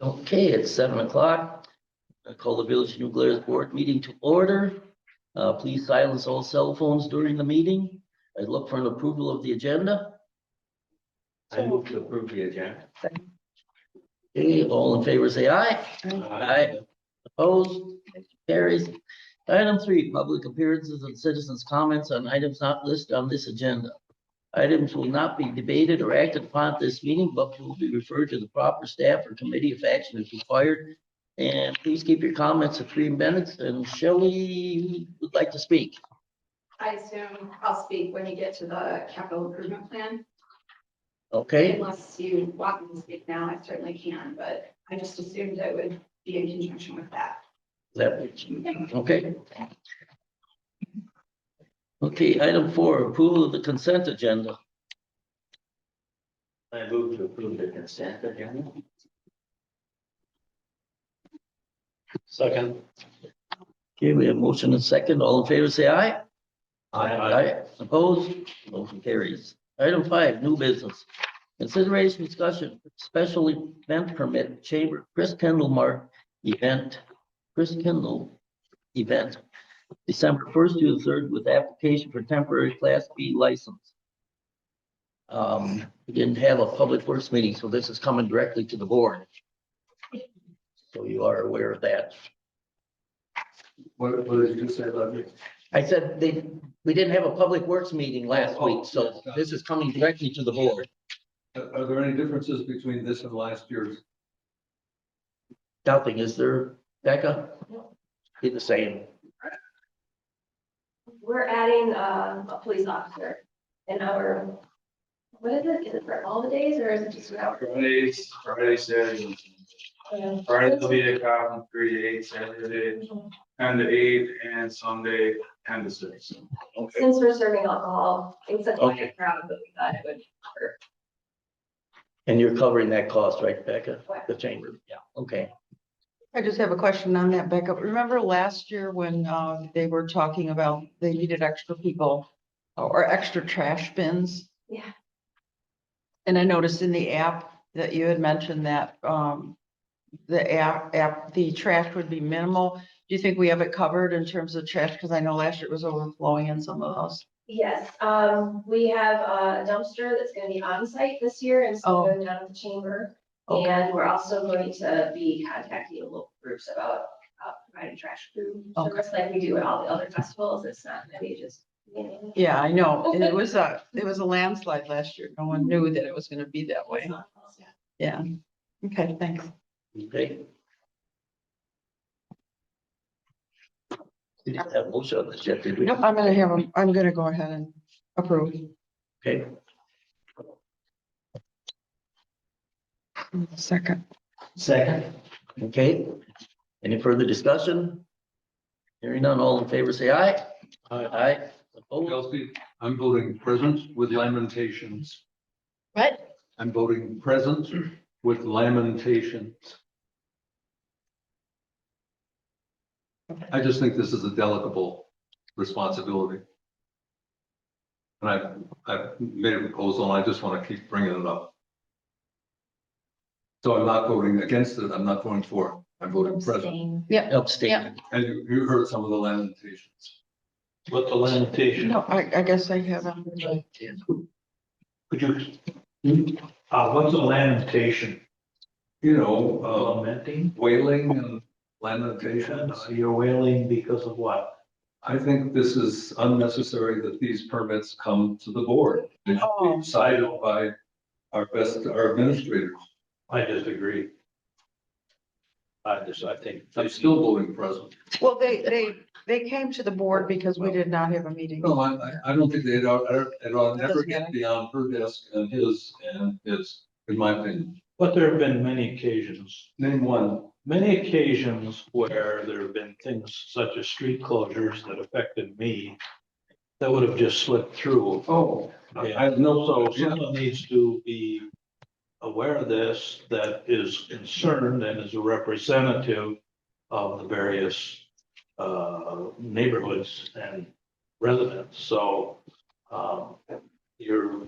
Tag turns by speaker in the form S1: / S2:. S1: Okay, it's seven o'clock. I call the Village of New Glarus Board meeting to order. Uh, please silence all cell phones during the meeting. I look for an approval of the agenda.
S2: I move to approve the agenda.
S1: Okay, all in favor, say aye. Aye. Opposed, carries. Item three, public appearances and citizens' comments on items not listed on this agenda. Items will not be debated or acted upon at this meeting, but will be referred to the proper staff or committee if action is required. And please keep your comments to three minutes, and Shelley would like to speak.
S3: I assume I'll speak when you get to the capital improvement plan.
S1: Okay,
S3: Unless you want me to speak now, I certainly can, but I just assumed I would be in conjunction with that.
S1: that, okay. Okay, item four, approval of the consent agenda.
S2: I move to approve the consent agenda. Second.
S1: Okay, we have motion and second. All in favor, say aye. Aye. Opposed? Motion carries. Item five, new business. Consideration discussion, special event permit, Chamber, Chris Kendall Mark event, Chris Kendall event, December first to the third with application for temporary class B license. Um, we didn't have a public works meeting, so this is coming directly to the board. So you are aware of that.
S4: What, what did you say about me?
S1: I said they, we didn't have a public works meeting last
S4: Oh, oh,
S1: week, so
S4: yes, got it.
S1: this is coming uh, directly to the board.
S4: Are, are there any differences between this and last year's?
S1: Nothing, is there, Becca? Be the same.
S5: We're adding um, a police officer in our, what is it? Is it for all the days or is it just an hour?
S6: Fridays, Friday, Saturday. Friday will be a cop, three to eight, Saturday, ten to eight, and Sunday, ten to six.
S5: Since we're serving alcohol, it's a
S1: Okay.
S5: quiet crowd, but we thought it would.
S1: And you're covering that cost, right, Becca?
S5: Right.
S1: The chamber, yeah, okay.
S7: I just have a question on that backup. Remember last year when uh, they were talking about they needed extra people uh, or extra trash bins?
S5: Yeah.
S7: And I noticed in the app that you had mentioned that um, the app, app, the trash would be minimal. Do you think we have it covered in terms of trash? Because I know last year it was overflowing in some of those.
S5: Yes, um, we have a dumpster that's gonna be on site this year and so
S7: Oh.
S5: going down to the chamber.
S7: Okay.
S5: And we're also going to be contacting the local groups about uh, providing trash crew.
S7: Okay.
S5: service like we do at all the other festivals. It's not gonna be just, you know,
S7: Yeah, I know. And it was a, it was a landslide last year. No one knew that it was going to be that way. Yeah. Okay, thanks.
S1: Okay. We didn't have motion on this yet, did we?
S7: No, I'm gonna have, 'em- I'm gonna go ahead and approve.
S1: Okay,
S7: Second.
S2: Second.
S1: okay. Any further discussion? Hearing none, all in favor, say aye. Aye. Opposed?
S4: Kelsey, I'm voting present with lamentations.
S7: What?
S4: I'm voting present with lamentations. I just think this is a delicable responsibility. And I've, I've made a proposal and I just want to keep bringing it up. So I'm not voting against it. I'm not voting for it. I'm voting present.
S1: Abstain.
S4: And you, you heard some of the lamentations.
S2: What the limitation,
S7: No, I, I guess I haven't.
S2: could you, uh, what's a lamentation?
S4: You know, um,
S2: Lamenting?
S4: wailing and lamentations.
S2: Because You're wailing because of what?
S4: I think this is unnecessary that these permits come to the board. They should
S7: Oh.
S4: be decided by our best, our administrators.
S2: I disagree. I just, I think.
S4: I'm still voting present.
S7: Well, they, they, they came to the board because we did not have a meeting.
S4: No, I, I- I don't think they'd, ought- it ought never
S7: Doesn't matter.
S4: get beyond her desk and his and his, in my opinion.
S8: But there have been many occasions,
S4: Name one.
S8: many occasions where there have been things such as street closures that affected me that would have just slipped through.
S4: Oh. I I have
S8: So
S4: no, yeah,
S8: someone needs to be aware of this, that is concerned and is a representative of the various uh, neighborhoods and residents, so um, you're